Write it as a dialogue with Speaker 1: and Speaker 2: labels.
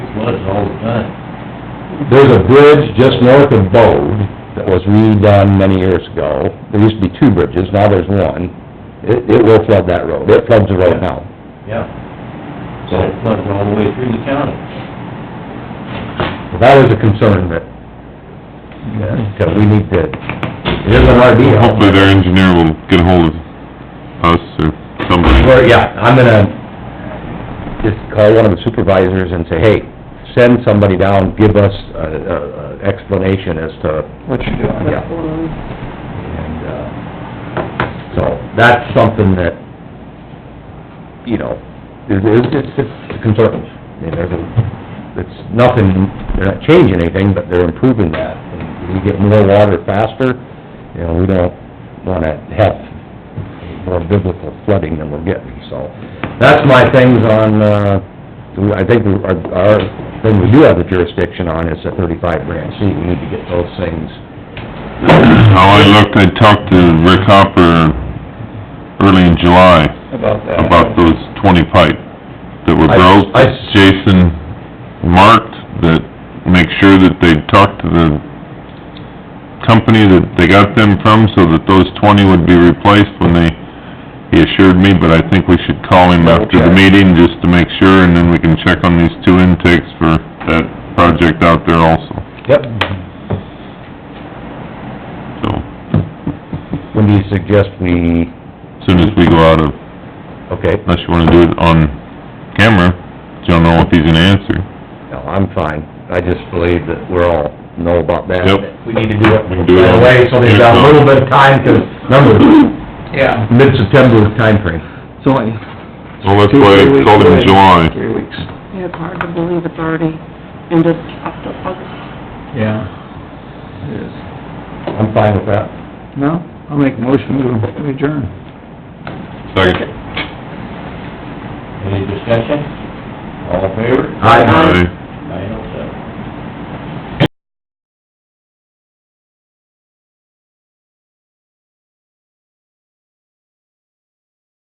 Speaker 1: was all the time.
Speaker 2: There's a bridge just north of Bode that was redone many years ago. There used to be two bridges, now there's one. It, it will flood that road. It floods the road now.
Speaker 1: Yeah. So it floods all the way through the county.
Speaker 2: That is a concern that, that we need to, it isn't our deal.
Speaker 3: Hopefully their engineer will get ahold of us or
Speaker 2: Well,
Speaker 3: somebody.
Speaker 2: yeah, I'm gonna just call one of the supervisors and say, hey, send somebody down, give us a, a, a explanation as to,
Speaker 4: What you doing?
Speaker 2: yeah. And, uh, so, that's something that, you know, it is, it's, it's a concern. I mean, there's a, it's nothing, they're not changing anything, but they're improving that. And We get more water faster, you know, we don't wanna have more biblical flooding than we're getting, so. That's my things on, uh, I think we- our, our, thing we do have the jurisdiction on is the thirty-five branch C, we need to get those things.
Speaker 3: How I looked, I talked to Rick Hopper early in July
Speaker 4: About that.
Speaker 3: about those twenty pipe that were
Speaker 2: I-
Speaker 3: broke.
Speaker 2: I-
Speaker 3: Jason marked that, make sure that they talk to the company that they got them from so that those twenty would be replaced when they, he assured me, but I think we should call him after
Speaker 2: Okay.
Speaker 3: the meeting just to make sure and then we can check on these two intakes for that project out there also,
Speaker 2: Yep.
Speaker 3: so.
Speaker 2: When do you suggest we,
Speaker 3: Soon as we go out of
Speaker 2: okay,
Speaker 3: Unless you wanna do it on camera, you don't know if he's gonna answer.
Speaker 2: no, I'm fine, I just believe that we're all know about that.
Speaker 3: Yep.
Speaker 2: We need to do it
Speaker 3: We can do it.
Speaker 2: right away, so they've got a little bit of time to, remember,
Speaker 4: Yeah.
Speaker 2: mid-September timeframe.
Speaker 4: It's only
Speaker 3: Well, that's
Speaker 4: two,
Speaker 3: why
Speaker 4: three
Speaker 3: I
Speaker 4: weeks
Speaker 3: called him
Speaker 4: away.
Speaker 3: in July.
Speaker 4: Three weeks,
Speaker 5: Yeah, it's hard to believe it's already ended up to August.
Speaker 4: yeah. It is.
Speaker 2: I'm fine with that.
Speaker 4: No, I'll make a motion to adjourn.
Speaker 3: Second.
Speaker 1: Any discussion? All in favor?
Speaker 2: Aye.
Speaker 3: Aye.